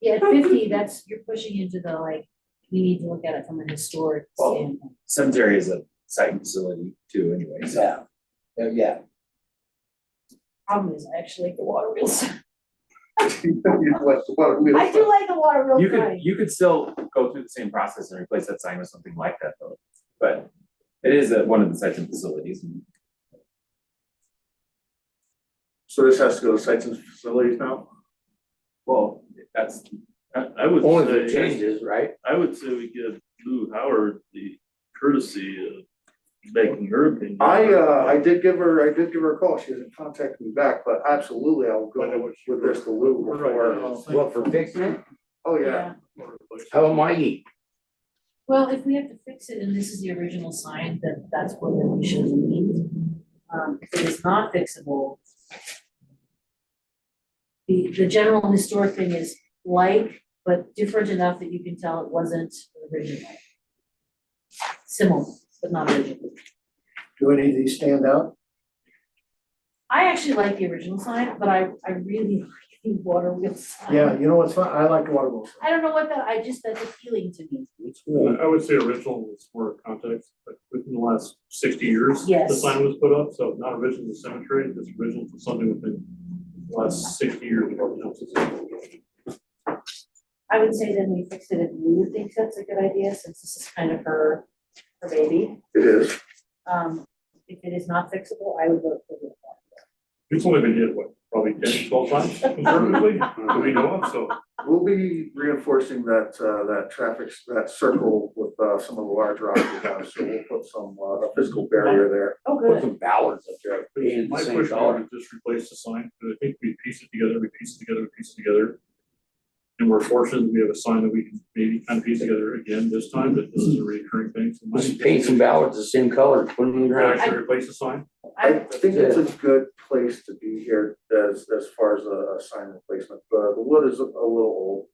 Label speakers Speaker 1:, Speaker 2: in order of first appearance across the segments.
Speaker 1: Yeah, at fifty, that's, you're pushing into the like, we need to look at it from a historic
Speaker 2: Well,
Speaker 1: standpoint.
Speaker 2: cemetery is a site facility too anyway, so.
Speaker 3: Yeah. Uh, yeah.
Speaker 1: Problem is, I actually like the water wheels.
Speaker 3: What's- what we-
Speaker 1: I do like the water
Speaker 2: You
Speaker 1: wheel
Speaker 2: could,
Speaker 1: sign.
Speaker 2: you could still go through the same process and replace that sign with something like that though, but it is a- one of the sites and facilities and
Speaker 4: So this has to go to sites and facilities now?
Speaker 2: Well, that's,
Speaker 5: I, I would
Speaker 3: Only the
Speaker 5: say,
Speaker 3: changes, right?
Speaker 5: I would say we give Lou Howard the courtesy of making her opinion.
Speaker 4: I, uh, I did give her, I did give her a call, she hasn't contacted me back, but absolutely, I'll go with this to Lou before.
Speaker 3: Well, for fixing it,
Speaker 4: Oh, yeah,
Speaker 3: how am I eat?
Speaker 1: Well, if we have to fix it and this is the original sign, then that's what then we should leave. Um, if it is not fixable. The, the general historic thing is like, but different enough that you can tell it wasn't original. Similar, but not original.
Speaker 6: Do any of these stand out?
Speaker 1: I actually like the original sign, but I, I really like the water wheel sign.
Speaker 6: Yeah, you know what's fun, I like water wheels.
Speaker 1: I don't know what that, I just, that's appealing to me.
Speaker 7: I would say original was for context, but within the last sixty years, the
Speaker 1: Yes.
Speaker 7: sign was put up, so not original to cemetery, it's original for something within the last sixty years of our town's history.
Speaker 1: I would say then we fix it if Lou thinks that's a good idea, since this is kind of her, her baby.
Speaker 4: it is.
Speaker 1: Um, if it is not fixable, I would vote for the one.
Speaker 7: It's only been hit, what, probably 10, 12 times conservatively, that we know of, so.
Speaker 4: We'll be reinforcing that, uh, that traffic, s- that circle with, uh, some of the large rocks we have, so we'll put some, uh, a physical barrier there.
Speaker 1: Oh,
Speaker 3: Put
Speaker 1: good.
Speaker 3: some ballards up there, paying the
Speaker 7: My
Speaker 3: same
Speaker 7: question
Speaker 3: dollar.
Speaker 7: is just replace the sign, but I think we piece it together, we piece it together, we piece it together. And we're fortunate, we have a sign that we can maybe kind of piece together again this time, that this is a recurring thing, so. my-
Speaker 3: Just paint some ballards the same color, put them in the ground.
Speaker 7: Actually replace the sign,
Speaker 4: I
Speaker 1: I,
Speaker 4: think it's a good place to be here as, as far as a a sign replacement, but the wood is a a little old.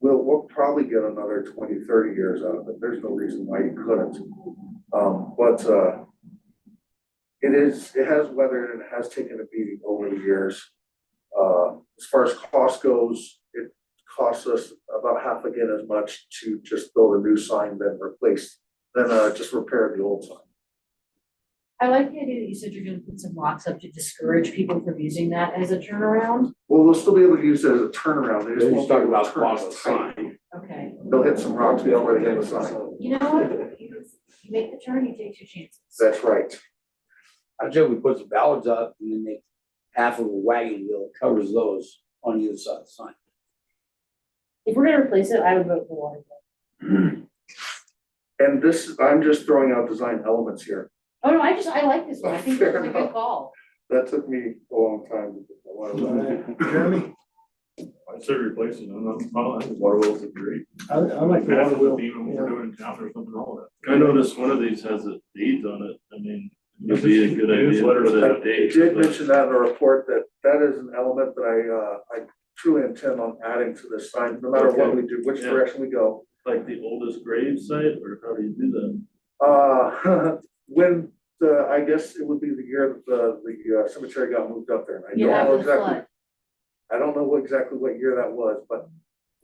Speaker 4: We'll, we'll probably get another 20, 30 years out of it, there's no reason why you couldn't. Um, but, uh, it is, it has weathered and it has taken a beating over the years. Uh, as far as cost goes, it costs us about half again as much to just build a new sign than replace, than, uh, just repair the old sign.
Speaker 1: I like the idea that you said you're gonna put some rocks up to discourage people from using that as a turnaround.
Speaker 4: Well, they'll still be able to use it as a turnaround, they just
Speaker 3: They're just
Speaker 4: won't
Speaker 3: talking
Speaker 4: be able to
Speaker 3: about
Speaker 4: turn
Speaker 3: cost of
Speaker 4: as tight.
Speaker 3: sign.
Speaker 1: Okay,
Speaker 4: They'll hit some rocks before they hit the sign,
Speaker 1: you know what? You you make the turn, you take your chances.
Speaker 4: that's right.
Speaker 3: I said we put some ballards up and then make half of a wagon wheel covers those on either side of the sign.
Speaker 1: If we're gonna replace it, I would vote for water. wheel.
Speaker 4: And this, I'm just throwing out design elements here,
Speaker 1: Oh, no, I just, I like this one. I think that's a
Speaker 4: Fair
Speaker 1: good
Speaker 4: enough.
Speaker 1: call.
Speaker 4: that took me a long time to get a lot of that.
Speaker 6: Jeremy,
Speaker 7: I say replace it, I'm not, I think water wheels are great.
Speaker 6: I, I
Speaker 7: Half
Speaker 6: like water
Speaker 7: of the
Speaker 6: wheel.
Speaker 7: beam we're doing in town, there's nothing wrong with
Speaker 5: I noticed one of these has a date on it, I mean, it'd be a good idea for that
Speaker 4: It
Speaker 5: date.
Speaker 4: did
Speaker 5: but-
Speaker 4: mention that in the report, that that is an element that I, uh, I truly intend on adding to this sign, no matter what we do, which
Speaker 5: Yeah.
Speaker 4: direction we go.
Speaker 5: like the oldest grave site, or how do you do that?
Speaker 4: Uh, when, the I guess it would be the year that the, the uh, cemetery got moved up there, and I
Speaker 1: You
Speaker 4: don't
Speaker 1: have
Speaker 4: know
Speaker 1: the
Speaker 4: exactly
Speaker 1: flood.
Speaker 4: I don't know what exactly what year that was, but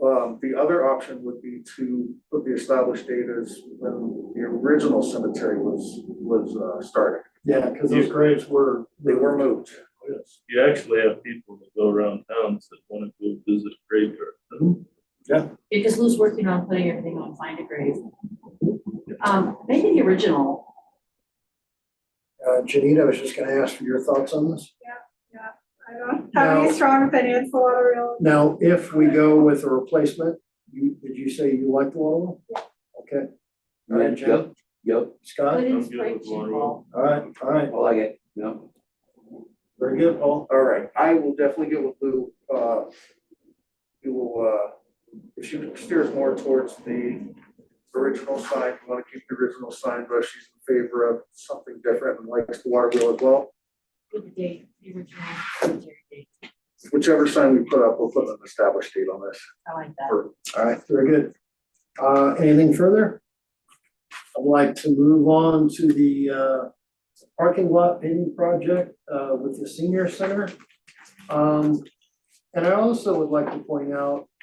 Speaker 4: um the other option would be to put the established date as when the original cemetery was was uh started.
Speaker 6: Yeah, because those graves were.
Speaker 4: They were moved.
Speaker 6: Oh,
Speaker 7: that. Yes.
Speaker 5: You actually have people that go around towns that wanna go visit graveyards.
Speaker 1: Because Lou's working on putting everything on find a grave. Um, maybe the original,
Speaker 6: Uh, Janita, I was just gonna ask for your thoughts on this.
Speaker 8: I don't have
Speaker 6: No.
Speaker 8: any strong opinions, for water real.
Speaker 6: Now, if we go with a replacement, you, did you say you like the water wheel? Okay, All right, Jim.
Speaker 3: Yep, yep,
Speaker 1: but
Speaker 6: Scott,
Speaker 1: it's
Speaker 5: good with
Speaker 1: great
Speaker 5: water
Speaker 1: to
Speaker 5: wheel.
Speaker 6: all right, all right,
Speaker 3: I like it, yep.
Speaker 6: very good, Paul.
Speaker 4: All right, I will definitely get with Lou, uh you will uh if she steers more towards the original sign, you wanna keep the original sign, but if she's in favor of something different and likes the water wheel as well.
Speaker 1: with the date, the original cemetery date.
Speaker 4: Whichever sign we put up, we'll put an established date on this.
Speaker 1: I like that.
Speaker 6: All right, very good. Uh, anything further? I'd like to move on to the, uh, parking lot paving project, uh, with the senior center. Um, and I also would like to point out